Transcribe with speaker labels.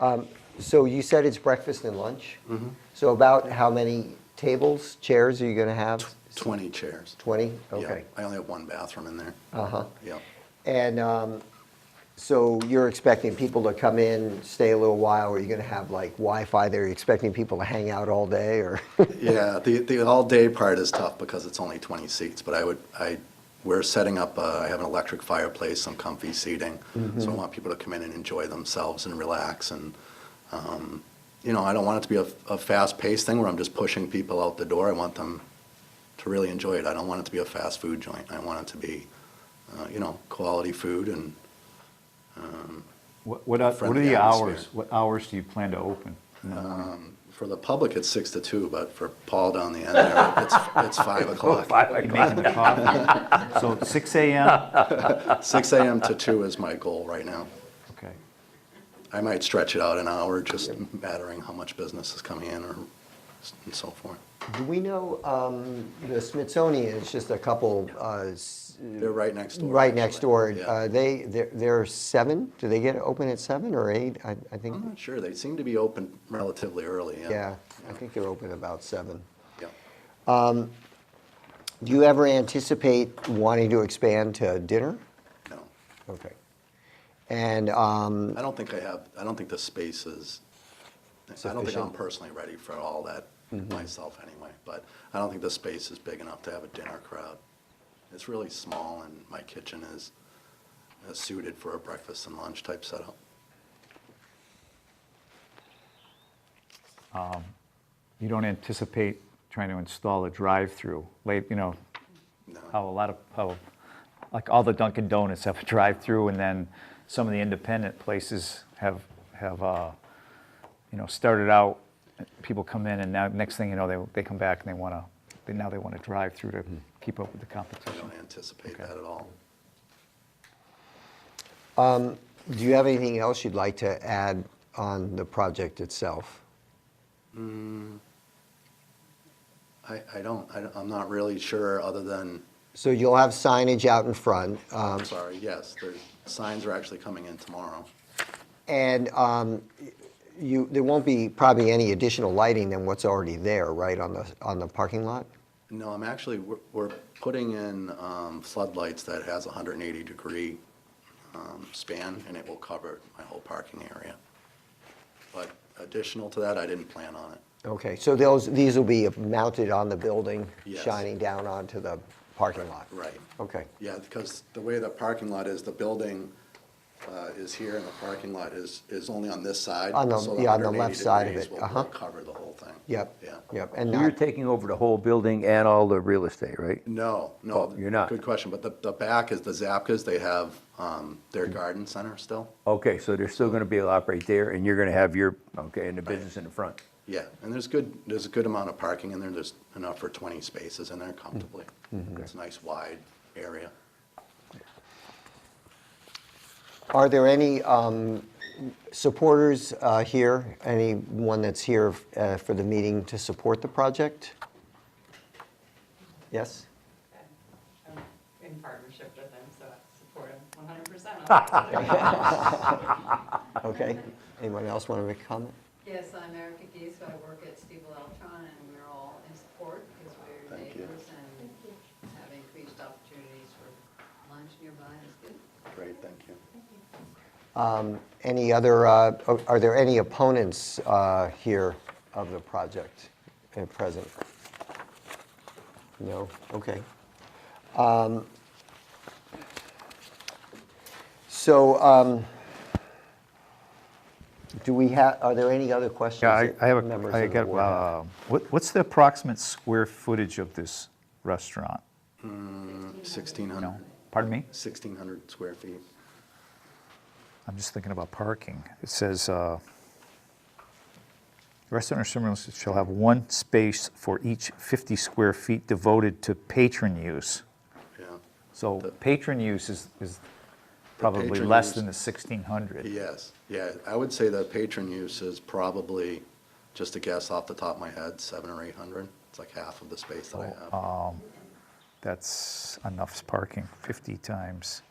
Speaker 1: Um, So you said it's breakfast and lunch?
Speaker 2: Mm-hmm.
Speaker 1: So about how many tables, chairs are you going to have?
Speaker 2: 20 chairs.
Speaker 1: 20?
Speaker 2: Yeah,
Speaker 1: Okay.
Speaker 2: I only have one bathroom in there.
Speaker 1: Uh-huh.
Speaker 2: Yeah.
Speaker 1: And um, so you're expecting people to come in, stay a little while, or you are going to have like Wi-Fi there? Are you expecting people to hang out all day or?
Speaker 2: Yeah, the, the all-day part is tough because it's only 20 seats, but I would, I, we're setting up, uh, I have an electric fireplace, some comfy seating.
Speaker 1: Mm-hmm.
Speaker 2: So I want people to come in and enjoy themselves and relax and, um, you know, I don't want it to be a, a fast-paced thing where I'm just pushing people out the door. I want them to really enjoy it. I don't want it to be a fast food joint. I want it to be, uh, you know, quality food and
Speaker 3: What, uh, what, are- what are
Speaker 2: Friendly
Speaker 3: the
Speaker 2: atmosphere. Uh,
Speaker 3: hours? What hours do you plan to open? in the morning?
Speaker 2: For the public, it's six to two, but for Paul down the end there, it's, it's five o'clock.
Speaker 3: You making the coffee? So six AM?
Speaker 2: Six AM to two is my goal right now.
Speaker 3: Okay.
Speaker 2: I might stretch it out an hour, just mattering how much business is coming in or, s- and so forth.
Speaker 1: Do we know, um, the Smithsonian is just a couple, uh, s-
Speaker 2: They're right next door.
Speaker 1: right next
Speaker 2: actually.
Speaker 1: door.
Speaker 2: Yeah.
Speaker 1: Uh, They, they're- they're seven? Do they get open at seven or eight? I I think,
Speaker 2: I'm not sure. They seem to be open relatively early, yeah.
Speaker 1: yeah, I think they're open about seven.
Speaker 2: Yeah.
Speaker 1: Do you ever anticipate wanting to expand to dinner?
Speaker 2: No,
Speaker 1: Okay. And, um,
Speaker 2: I don't think I have, I don't think the space is, I don't think I'm
Speaker 1: Sufficient.
Speaker 2: personally ready for all that myself anyway, but I don't think the space is big enough to have a dinner crowd. It's really small and my kitchen is uh, suited for a breakfast and lunch type setup.
Speaker 3: You don't anticipate trying to install a drive-through late, you know,
Speaker 2: No.
Speaker 3: how a lot of, how, like all the Dunkin' Donuts have a drive-through and then some of the independent places have, have, uh, you know, started out, people come in and now, next thing you know, they, they come back and they want to, they, now they want to drive-through to
Speaker 2: Hmm.
Speaker 3: keep up with the
Speaker 2: I
Speaker 3: competition.
Speaker 2: don't anticipate
Speaker 3: Okay.
Speaker 2: that at all.
Speaker 1: do you have anything else you'd like to add on the project itself?
Speaker 2: I, I don't, I, am not really sure, other than,
Speaker 1: So you'll have signage out in front, um,
Speaker 2: I'm sorry, yes, the signs are actually coming in tomorrow.
Speaker 1: and um, you, there won't be probably any additional lighting than what's already there, right, on the, on the parking lot?
Speaker 2: No, I'm actually, we're, we're putting in um, floodlights that has a hundred and eighty degree um, span, and it will cover my whole parking area. But additional to that, I didn't plan on it.
Speaker 1: Okay, so those, these will be mounted on the building,
Speaker 2: Yes.
Speaker 1: shining down onto the parking lot?
Speaker 2: Right.
Speaker 1: Okay,
Speaker 2: Yeah, because the way the parking lot is, the building uh, is here, and the parking lot is, is only on this side.
Speaker 1: On the-
Speaker 2: so
Speaker 1: yeah, on the left
Speaker 2: 180
Speaker 1: side of
Speaker 2: degrees
Speaker 1: it,
Speaker 2: will-
Speaker 1: uh-huh.
Speaker 2: will cover the whole thing.
Speaker 1: yep,
Speaker 2: Yeah.
Speaker 1: yep, and
Speaker 4: You're
Speaker 1: not,
Speaker 4: taking over the whole building and all the real estate, right?
Speaker 2: No, no.
Speaker 4: Oh, you're not.
Speaker 2: Good question, but the, the back is the Zapkas, they have um, their garden center still.
Speaker 4: Okay, so they're still gonna be able to operate there, and you're gonna have your, okay, and the business in the front.
Speaker 2: Yeah, and there's good, there's a good amount of parking in there, there's enough for 20 spaces in there comfortably. It's a nice wide area.
Speaker 1: are there any um, supporters uh, here? Anyone that's here uh, for the meeting to support the project? Yes?
Speaker 5: I'm in partnership with them, so I support them one hundred percent.
Speaker 1: Okay, anyone else want to make a comment?
Speaker 5: Yes, I'm Erica Geese, I work at Steve Electron, and we're all in support because we're
Speaker 2: Thank you.
Speaker 5: neighbors and have increased opportunities for lunch nearby is good.
Speaker 2: Great, thank you.
Speaker 1: Any other, uh, are are there any opponents uh, here of the project at present? No? Okay. Um, So um, do we have, are there any other questions?
Speaker 3: Yeah, I,
Speaker 1: that
Speaker 3: I have
Speaker 1: members
Speaker 3: a,
Speaker 1: of
Speaker 3: I
Speaker 1: the
Speaker 3: got,
Speaker 1: board have?
Speaker 3: uh, what, what's the approximate square footage of this restaurant?
Speaker 2: 1,600,
Speaker 3: No, pardon me?
Speaker 2: 1,600 square feet.
Speaker 3: I'm just thinking about parking. It says, uh, restaurant or similar shall have one space for each 50 square feet devoted to patron use.
Speaker 2: Yeah,
Speaker 3: So
Speaker 2: The-
Speaker 3: patron use is, is probably
Speaker 2: patron
Speaker 3: less
Speaker 2: use-
Speaker 3: than the 1,600.
Speaker 2: yes, yeah, I would say the patron use is probably, just a guess off the top of my head, 700 or 800. It's like half of the space that I have.
Speaker 3: That's enough parking, 50 times.